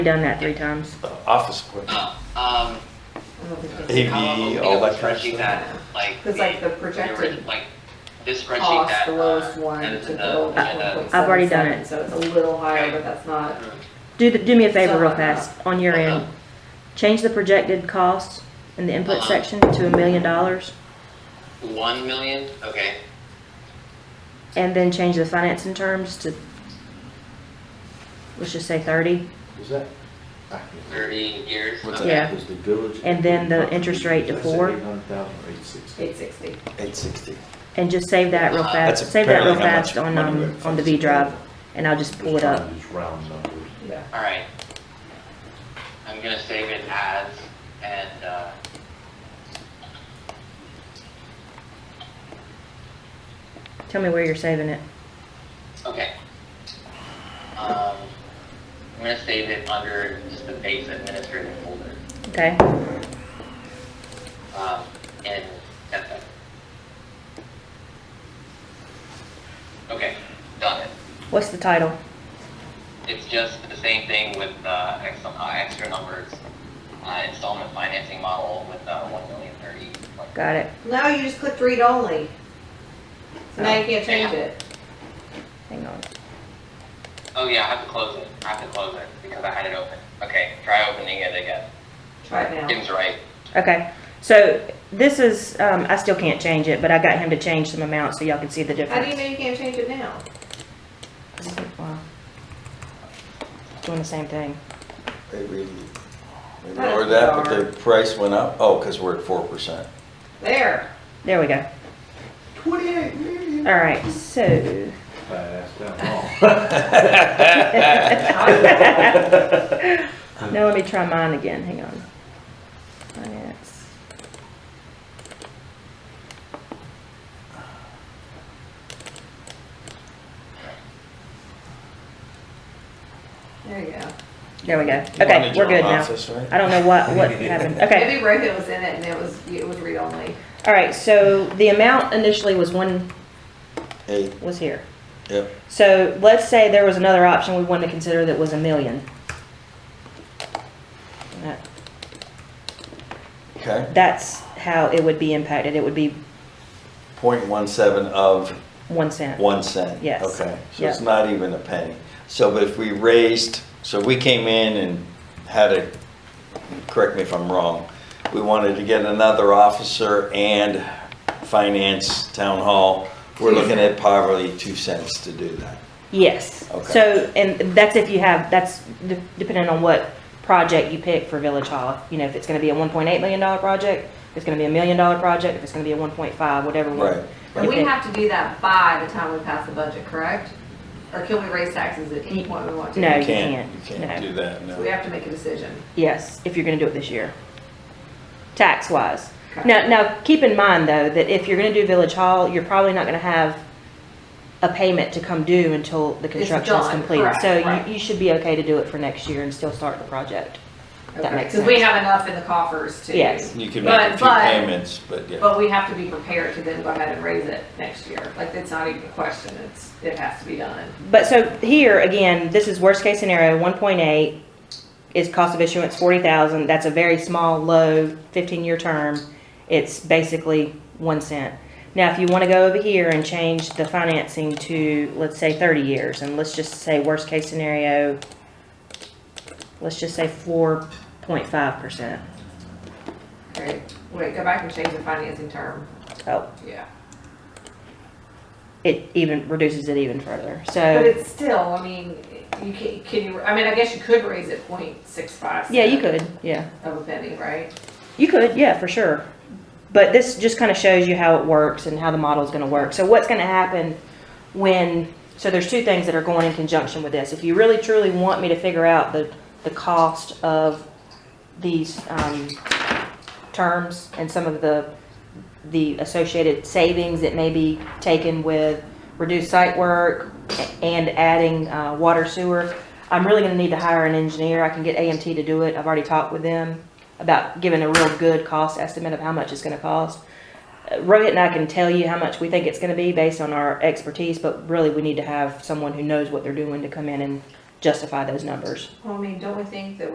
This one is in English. done that three times. Office equipment, Um, AV, all that kind of spreadsheet stuff. that, like. Because, like, the your- projected Like, this spreadsheet cost, that. the uh, lowest one that uh, to is the in lowest the- in the- one. I've already done it. So it's a little higher, but that's uh, not, Do, the- do me a favor real fast, on your end. Change the projected costs in the input section to a million dollars, One million, okay, and then change the financing terms to, let's just say thirty, Was that? thirty years. What's okay. Yeah. Was the village? And then the interest rate to four. Eight hundred thousand or eight sixty. eight sixty. eight sixty. and just save that real That's fast, save that real apparently how much fast on, money um, we're on the V drive, and I'll just pull it up. Just round numbers. Yeah. All right. I'm gonna save it as, and, uh, Tell me where you're saving it. okay. Um, I'm gonna save it under just the base administrative folder, Okay, um, in Tempe. Okay, done it. what's the title? It's just the same thing with uh, ex- uh, extra numbers, uh, installment financing model with uh, one million thirty. like- Got it. Now you just clicked read only. So now you can't change it. Hang on. Oh yeah, I have to close it. I have to close it because I had it open. Okay, try opening it again. Try it now. Tim's right. Okay, so this is, um, I still can't change it, but I got him to change some amounts so y'all can see the How do you difference. know you can't change it now? Wow. Doing the same thing. They really, they That's lowered that, but the bizarre. price went up, oh, because we're at four percent. There. There we go. Twenty-eight million. All right, so. That's down Now let me try mine again, hang on. Finance. There you go. There we go. Okay, we're good now. I don't know what, what happened. Okay. Maybe Rohit was in it and it was, it was read only. All right, so the amount initially was one, Eight, was here. yep, So let's say there was another option we wanted to consider that was a million. That- okay. That's how it would be impacted. It would be Point one seven of one cent. one cent. Yes. Okay, so it's Yeah. not even a penny. So, but if we raised, so we came in and had a, correct me if I'm wrong, we wanted to get another officer and finance town hall. We're looking at probably two cents to do that. Yes. Okay. So, and that's if you have, that's de- depending on what project you pick for Village Hall. You know, if it's gonna be a one point eight million dollar project, if it's gonna be a million dollar project, if it's gonna be a one point five, whatever one. Right. And you we pick. have to do that by the time we pass the budget, correct? Or can we raise taxes at any point we want to? No, you You can't. can't No. do that, no. So we have to make a decision. Yes, if you're gonna do it this year. Tax wise. Okay. Now, now, keep in mind though, that if you're gonna do Village Hall, you're probably not gonna have a payment to come due until the construction is done, completed. correct, So right. you, you should be okay to do it for next year and still start the project. That makes Because we sense. have enough in the coffers to. Yes. You can make a But- few but- payments, but yeah. But we have to be prepared to then go ahead and raise it next year. Like, it's not even a question, it's, it has to be done. But so here, again, this is worst case scenario, one point eight is cost of issuance forty thousand, that's a very small, low, fifteen-year term. It's basically one cent. Now, if you wanna go over here and change the financing to, let's say, thirty years, and let's just say worst case scenario, let's just say four point five percent. Right, wait, go back and change the financing term, Oh, yeah. it even reduces it even further, But so, it's still, I mean, you can, can you, I mean, I guess you could raise it point six five. yeah, you could, yeah. Of a penny, right? You could, yeah, for sure. But this just kind of shows you how it works and how the model is going to work. So what's going to happen when, so there's two things that are going in conjunction with this. If you really truly want me to figure out the, the cost of these, um, terms and some of the, the associated savings that may be taken with reduced site work and adding, uh, water sewer, I'm really gonna need to hire an engineer. I can get AMT to do it. I've already talked with them about giving a real good cost estimate of how much it's gonna cost. Uh, Rohit and I can tell you how much we think it's gonna be based on our expertise, but really we need to have someone who knows what they're doing to come in and justify those numbers. Well, I mean, don't we think that